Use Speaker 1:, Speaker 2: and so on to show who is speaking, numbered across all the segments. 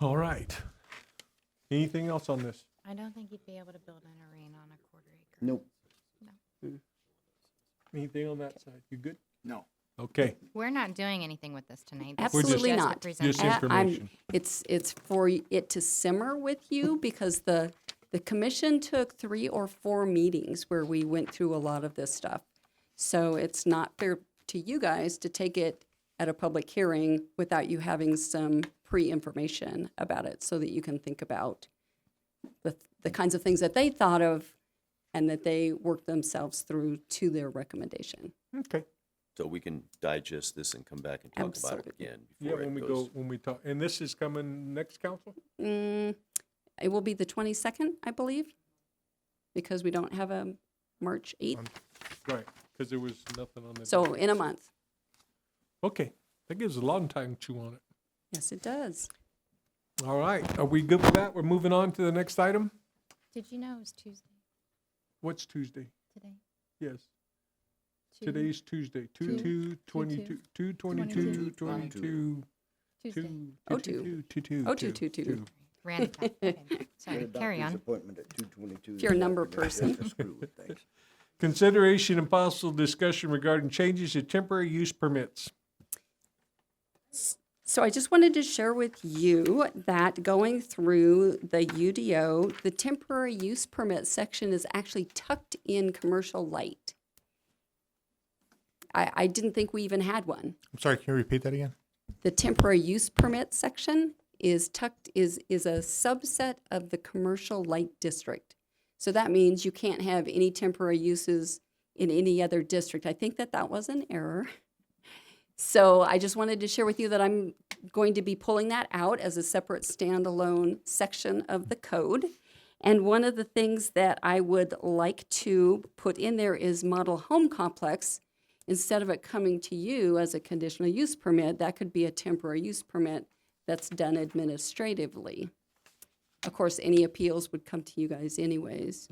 Speaker 1: All right. Anything else on this?
Speaker 2: I don't think you'd be able to build an arena on a quarter acre.
Speaker 3: Nope.
Speaker 1: Anything on that side? You good?
Speaker 3: No.
Speaker 1: Okay.
Speaker 2: We're not doing anything with this tonight. This is
Speaker 4: Absolutely
Speaker 2: just a
Speaker 4: not.
Speaker 1: Just
Speaker 2: presentation.
Speaker 4: Uh, I'm-
Speaker 1: information.
Speaker 4: It's, it's for y- it to simmer with you because the, the commission took three or four meetings where we went through a lot of this stuff. So it's not fair to you guys to take it at a public hearing without you having some pre-information about it so that you can think about the, the kinds of things that they thought of and that they worked themselves through to their recommendation.
Speaker 1: Okay.
Speaker 5: So we can digest this and come back and talk about it
Speaker 4: Absolutely.
Speaker 5: again.
Speaker 1: Yeah,
Speaker 5: before it
Speaker 1: when we
Speaker 5: goes-
Speaker 1: go, when we talk, and this is coming next council?
Speaker 4: Mm, it will be the 22nd, I believe, because we don't have a March 8th.
Speaker 1: Um, Right, because there was nothing on the.
Speaker 4: So in a month.
Speaker 1: Okay, that gives a long time to chew on it.
Speaker 4: Yes, it does.
Speaker 1: All right, are we good with that? We're moving on to the next item?
Speaker 2: Did you know it was Tuesday
Speaker 1: What's Tuesday?
Speaker 2: today?
Speaker 1: Yes,
Speaker 2: Two-
Speaker 1: today's Tuesday, two, two, twenty-two, two, twenty-two, twenty-two,
Speaker 2: Tuesday.
Speaker 1: two,
Speaker 4: Oh,
Speaker 1: two, two, two, two,
Speaker 4: Oh, two,
Speaker 1: two,
Speaker 4: two,
Speaker 1: two.
Speaker 4: two.
Speaker 2: Random fact. Okay.
Speaker 3: Get
Speaker 2: Sorry,
Speaker 3: a
Speaker 2: carry
Speaker 3: doctor's
Speaker 2: on.
Speaker 3: Appointment at two twenty-two.
Speaker 4: If you're a number person.
Speaker 1: Consideration and possible discussion regarding changes to temporary use permits.
Speaker 4: So I just wanted to share with you that going through the UDO, the temporary use permit section is actually tucked in commercial light. I, I didn't think we even had one.
Speaker 6: I'm sorry, can you repeat that again?
Speaker 4: The temporary use permit section is tucked, is, is a subset of the commercial light district. So that means you can't have any temporary uses in any other district. I think that that was an error. So I just wanted to share with you that I'm going to be pulling that out as a separate standalone section of the code. And one of the things that I would like to put in there is model home complex. Instead of it coming to you as a conditional use permit, that could be a temporary use permit that's done administratively. Of course, any appeals would come to you guys anyways.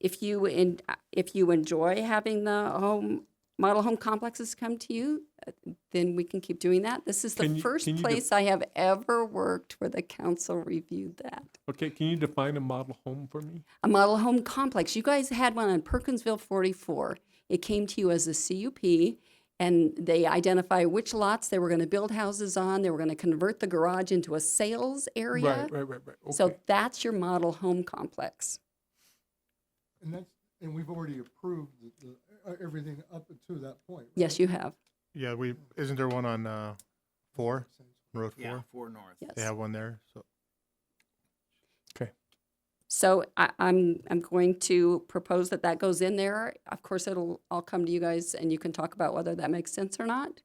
Speaker 4: If you, en- if you enjoy having the home, model home complexes come to you, uh, then we can keep doing that. This is
Speaker 1: Can
Speaker 4: the
Speaker 1: you-
Speaker 4: first
Speaker 1: can you def-
Speaker 4: place I have ever worked where the council reviewed that.
Speaker 1: Okay, can you define a model home for me?
Speaker 4: A model home complex. You guys had one on Perkinsville 44. It came to you as a CUP, and they identify which lots they were going to build houses on. They were going to convert the garage into a sales area.
Speaker 1: Right, right, right, right.
Speaker 4: So
Speaker 1: Okay,
Speaker 4: that's your model home complex.
Speaker 7: And that's, and we've already approved the, the, uh, everything up to that point.
Speaker 4: Yes, you have.
Speaker 6: Yeah, we, isn't there one on, uh, four, road four?
Speaker 3: four north.
Speaker 4: Yes.
Speaker 6: They have one there, so.
Speaker 1: okay.
Speaker 4: So I, I'm, I'm going to propose that that goes in there. Of course, it'll all come to you guys and you can talk about whether that makes sense or not.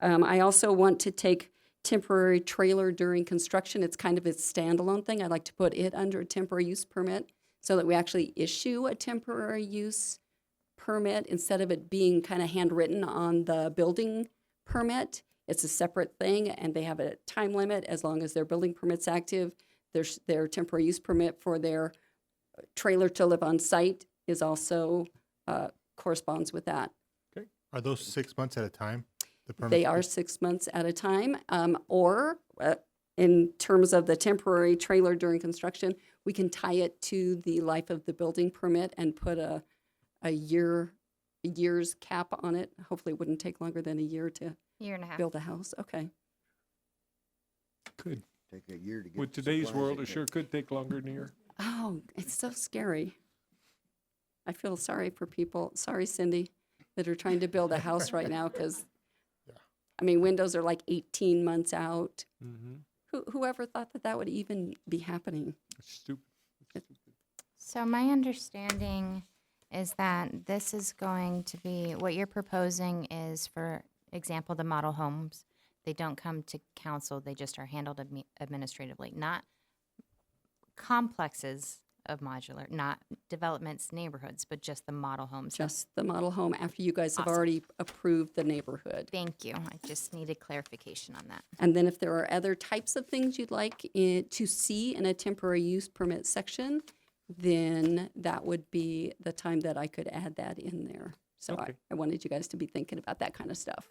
Speaker 4: Um, I also want to take temporary trailer during construction. It's kind of a standalone thing. I'd like to put it under a temporary use permit so that we actually issue a temporary use permit instead of it being kind of handwritten on the building permit. It's a separate thing and they have a time limit as long as their building permit's active. Their, s- their temporary use permit for their uh, trailer to live on site is also, uh, corresponds with that.
Speaker 6: Are those six months at a time? the permits?
Speaker 4: They are six months at a time, um, or uh, in terms of the temporary trailer during construction, we can tie it to the life of the building permit and put a, a year, a year's cap on it. Hopefully, it wouldn't take longer than a year to
Speaker 2: Year and a half.
Speaker 4: build a house. Okay.
Speaker 1: Good.
Speaker 3: Take a year to get.
Speaker 1: With
Speaker 3: the
Speaker 1: today's
Speaker 3: supplies
Speaker 1: world,
Speaker 3: they
Speaker 1: it sure
Speaker 3: get.
Speaker 1: could take longer than a year.
Speaker 4: Oh, it's so scary. I feel sorry for people, sorry Cindy, that are trying to build a house right now because, I mean, windows are like 18 months out. Who, whoever thought that that would even be happening?
Speaker 1: It's stupid.
Speaker 2: So my understanding is that this is going to be, what you're proposing is, for example, the model homes. They don't come to council, they just are handled admi- administratively, not complexes of modular, not developments, neighborhoods, but just the model homes. That's-
Speaker 4: Just the model home after you guys have
Speaker 2: Awesome.
Speaker 4: already approved the neighborhood.
Speaker 2: Thank you. I just needed clarification on that.
Speaker 4: And then if there are other types of things you'd like it to see in a temporary use permit section, then that would be the time that I could add that in there. So I,
Speaker 1: Okay.
Speaker 4: I wanted you guys to be thinking about that kind of stuff.